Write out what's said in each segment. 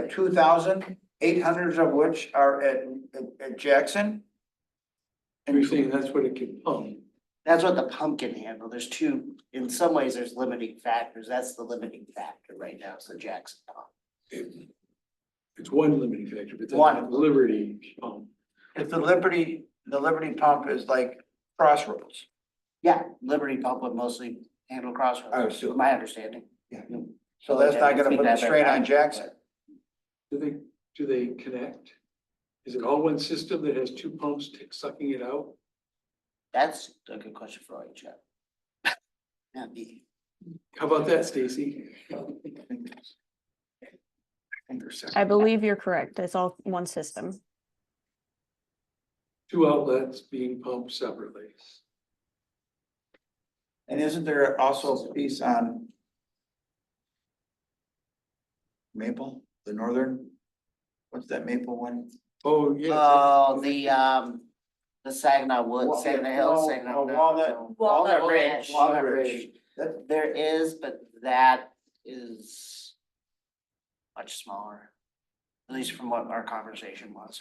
have two thousand eight hundred of which are at, at- at Jackson. You're saying that's what it could pump. That's what the pump can handle. There's two, in some ways, there's limiting factors. That's the limiting factor right now, so Jackson pump. It- It's one limiting factor, but One. that's Liberty pump. If the Liberty, the Liberty pump is like crossroads. Yeah, Liberty pump would mostly handle I crossroads, assume. my understanding. Uh, So that's not gonna put it straight on Jackson. Do they, do they connect? Is it all one system that has two pumps t- sucking it out? That's a good question for our Jeff. Not me. How about that, Stacy? I believe you're correct. It's all one system. Two outlets being pumped separately. And isn't there also a piece on Maple, the northern? What's that Maple one? Oh, yeah. Oh, the, um, the Saginaw Woods, Wal- Saginaw Hills, Wal- Saginaw. uh, Walnut- no, Walnut Ridge. Walnut Walnut Ridge. That, There is, but that is much smaller, at least from what our conversation was.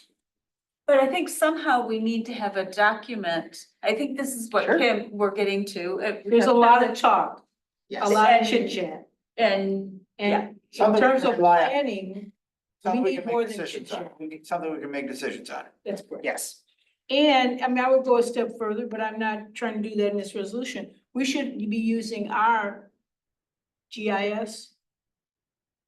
But I think somehow we need to have a document. I think this is what Sure. Kim, we're getting to. uh, There's a lot of talk, a Yes. lot of chit chat, And, yeah, and in Somebody terms can of rely on- planning, we something we need can make more than chit decisions on. chat. We need something we can make decisions on. That's correct. Yes, And, I mean, I would go a step further, but I'm not trying to do that in this resolution. We should be using our GIS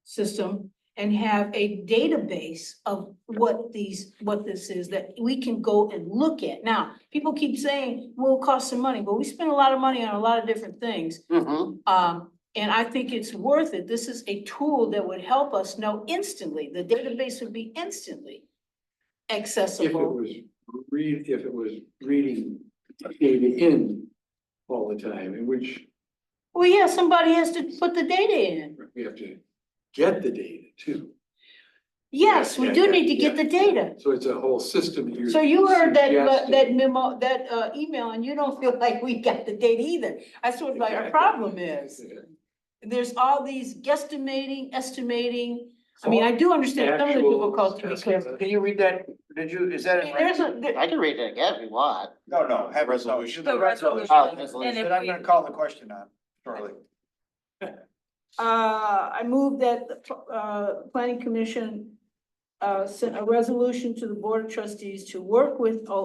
system and have a database of what these, what this is that we can go and look at. Now, people keep saying, well, it costs some money, but we spend a lot of money on a lot of different things. mm-hmm, Um, and I think it's worth it. This is a tool that would help us know instantly. The database would be instantly If it uh, accessible. was read, if it was reading data in all the time, in which Well, yeah, somebody has to put the data in. we have to get the data too. Yes, we Yeah, do yeah, need to get yeah. the data. So it's a whole system here. So you heard that, le- suggesting. that memo, that, uh, email and you don't feel like we got the data either. That's what like our Exactly. problem is. There's all these guesstimating, estimating. I mean, I do understand some of the Actual difficulty because estimate. Can you read that? Did you, is that in? there's a, there- I can read it again if you want. No, no, have resolution. The resolution. Oh, and resolution. That if I'm we, gonna call the question on shortly. Uh, I move that the, pl- uh, planning commission. Uh, sent a resolution to the board of trustees to work with O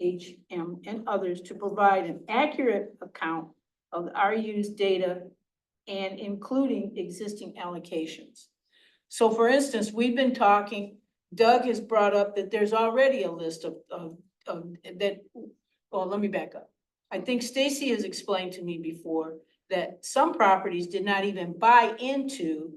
H M and others to provide an accurate account of the RU's data. And including existing allocations. So for instance, we've been talking, Doug has brought up that there's already a list of, of, of, that, well, let me back up. I think Stacy has explained to me before that some properties did not even buy into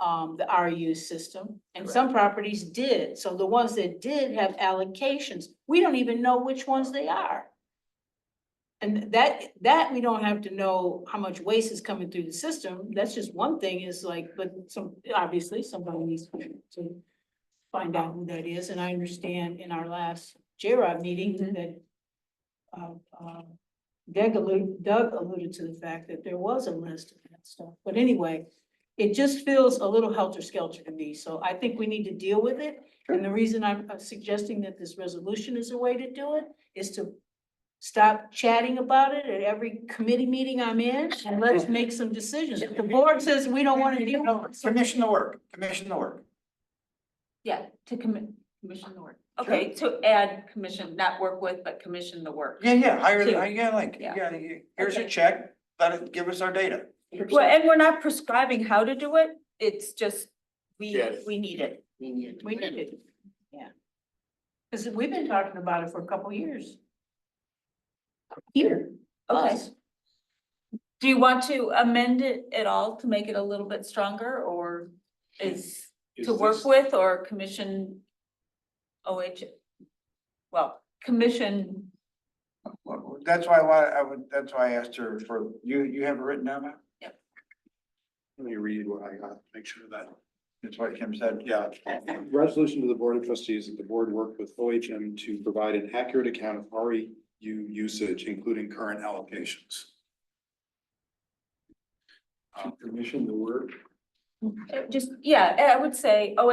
um, the RU system, and some properties did. So the ones that did have allocations, we don't even know which ones they are. And that, that we don't have to know how much waste is coming through the system. That's just one thing is like, but some, obviously, somebody needs to find out who that is, and I understand in our last J-Rod meeting that uh, uh, Doug alluded, Doug alluded to the fact that there was a list of that stuff, but anyway, it just feels a little helter-skelter to me, so I think we need to deal with it. And the reason I'm uh, suggesting that this resolution is a way to do it is to stop chatting about it at every committee meeting I'm in, and let's make some decisions. If the board says we don't want to deal with it, so Commission the work, commission the work. yeah, to commi- commission the work. Okay, to add commission, not work with, but commission the work. Yeah, yeah, hire, Two. yeah, like, Yeah. yeah, you- here's your Okay. check, let it, give us our data. Well, and we're not prescribing how to do it. It's just, we, Yes. we need it. We need it. We need it, yeah. Cause we've been talking about it for a couple years. Here, Okay. us, Do you want to amend it at all to make it a little bit stronger or is Is to work this- with or commission? OH, well, commission, Well, That's why, why I would, that's why I asked her for, you, you have it written down now? Let me read what I got, make sure that. That's what Kim said, yeah. Resolution to the Board of Trustees that the board work with OHM to provide an accurate account of REU usage, including current allocations. Commission the work. uh, just, yeah, I would say OH